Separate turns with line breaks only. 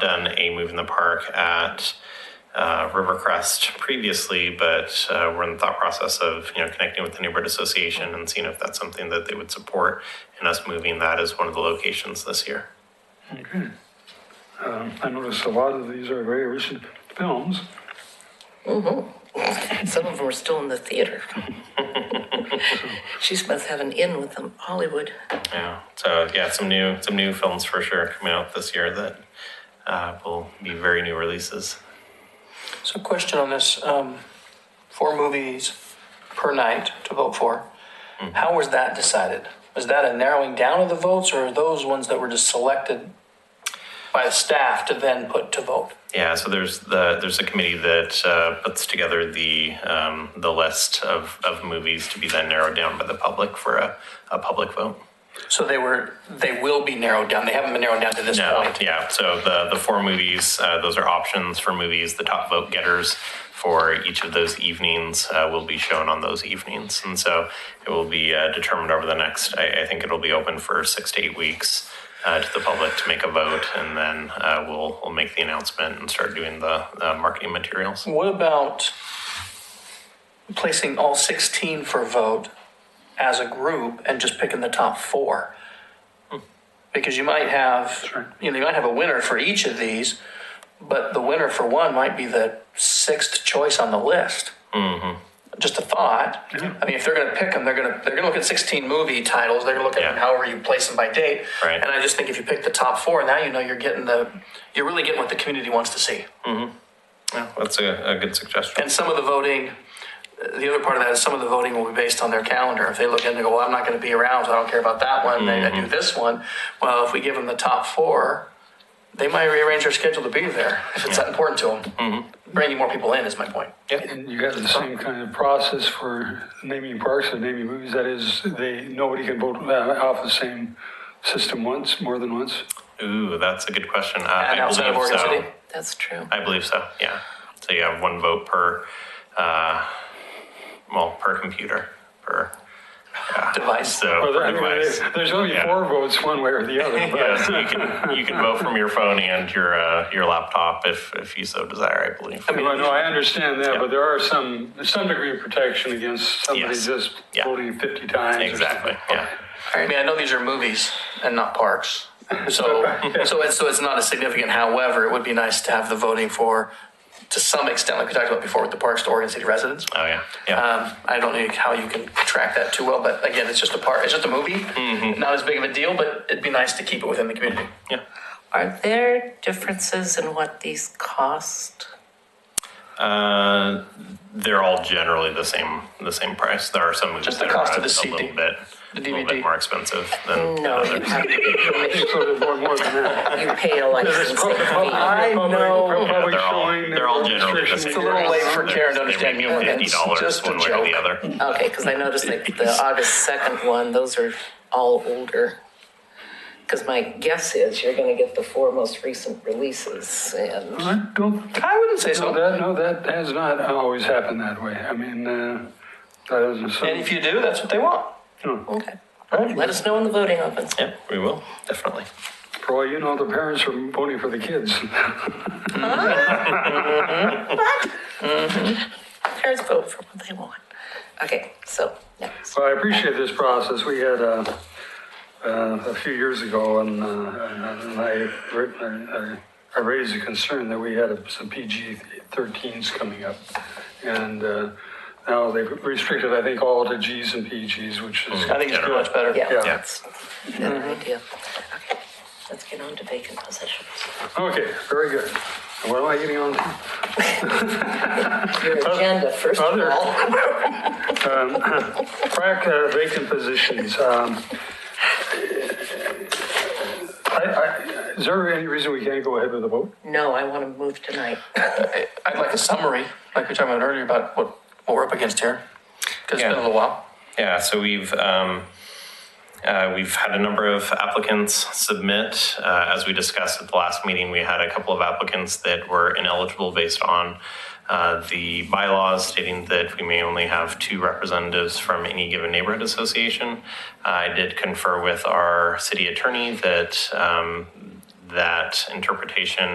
done a move in the park at uh, Rivercrest previously, but uh, we're in the thought process of, you know, connecting with the neighborhood association and seeing if that's something that they would support and us moving that as one of the locations this year.
Um, I noticed a lot of these are very recent films.
Some of them are still in the theater. She must have an in with them, Hollywood.
Yeah, so yeah, some new some new films for sure coming out this year that uh, will be very new releases.
So question on this, um, four movies per night to vote for. How was that decided? Was that a narrowing down of the votes or are those ones that were just selected by the staff to then put to vote?
Yeah, so there's the there's a committee that uh, puts together the um, the list of, of movies to be then narrowed down by the public for a, a public vote.
So they were, they will be narrowed down. They haven't been narrowed down to this
No,
point.
yeah. So the the four movies, uh, those are options for movies. The top vote getters for each of those evenings uh, will be shown on those evenings, and so it will be uh, determined over the next. I, I think it'll be open for six to eight weeks uh, to the public to make a vote, and then uh, we'll we'll make the announcement and start doing the uh, marketing materials.
What about placing all 16 for vote as a group and just picking the top four? Because you might have,
Sure.
you know, you might have a winner for each of these, but the winner for one might be the sixth choice on the list.
Mm-hmm.
Just a thought. I mean, if they're going to pick them, they're going to they're going to look at 16 movie titles. They're going to look at
Yeah.
them however you place them by date.
Right.
And I just think if you pick the top four, now you know you're getting the you're really getting what the community wants to see.
Yeah, that's a, a good suggestion.
And some of the voting, the other part of that is some of the voting will be based on their calendar. If they look in and go, well, I'm not going to be around, so I don't care about that one, they do this one. Well, if we give them the top four, they might rearrange their schedule to be there if it's that important to them. Bringing more people in is my point.
And you got the same kind of process for naming parks and naming movies. That is, they, nobody can vote uh, off the same system once, more than once.
Ooh, that's a good question. Uh, I
And outside of
believe
Oregon
so.
City,
That's true.
I believe so. Yeah. So you have one vote per, uh, well, per computer per.
device.
So
Well,
per
I mean,
device.
There's only
Yeah.
four votes, one way or the other. but-
Yeah, so you can you can vote from your phone and your uh, your laptop if if you so desire. I believe.
Well, no, I understand that, but there are some, there's some degree of protection against somebody
Yes.
just
Yeah.
voting 50 times. or
exactly. Yeah.
I mean, I know these are movies and not parks. So, so it's, so it's not as significant. However, it would be nice to have the voting for, to some extent, like we talked about before with the parks to Oregon City residents.
Oh yeah. Yeah.
Um, I don't know how you can track that too well, but again, it's just a part, it's just a movie. Not as big of a deal, but it'd be nice to keep it within the community.
yeah.
Are there differences in what these cost?
Uh, they're all generally the same the same price. There are some movies
Just the
that
cost
are
of the
a
CD,
little bit a
the
little
DVD.
bit more expensive than, than
No, you
others.
have
something.
to,
So there's more- more than that.
you pay a licensing
public- public-
fee.
public-
know.
Yeah,
public
they're all
showing,
they're all
no
generally the
restrictions.
same.
It's a little late for
price.
Karen to
They
understand
may be
humor.
Fifty
It's
dollars
just a
one way or the
joke.
other.
Okay, because I noticed like the August 2nd one, those are all older. Because my guess is you're going to get the four most recent releases and
I don't
I wouldn't say
No,
so.
that, no, that has not always happened that way. I mean, uh, that isn't
And
something.
if you do, that's what they want.
okay. Let us know when the voting opens.
Yeah, we will definitely.
For all you know, the parents are voting for the kids.
Parents vote for what they want. Okay, so next.
Well, I appreciate this process. We had uh, uh, a few years ago, and, uh, and I, I, I raised a concern that we had some PG 13s coming up. And uh, now they've restricted, I think, all to Gs and PGs, which is.
I think it's much better.
Yeah,
Yeah.
that's a better idea. Okay, let's get on to vacant possessions.
Okay, very good. And What am I getting on to?
Your agenda, first of
other-
all.
Crack uh, vacant positions. um, I- I- Is there any reason we can't go ahead with the vote?
No, I want to move tonight.
I'd like a summary, like we were talking about earlier about what, what we're up against here. Because it's been a
Yeah.
little while.
Yeah, so we've um, uh, we've had a number of applicants submit. Uh, as we discussed at the last meeting, we had a couple of applicants that were ineligible based on uh, the bylaws stating that we may only have two representatives from any given neighborhood association. I did confer with our city attorney that um, that interpretation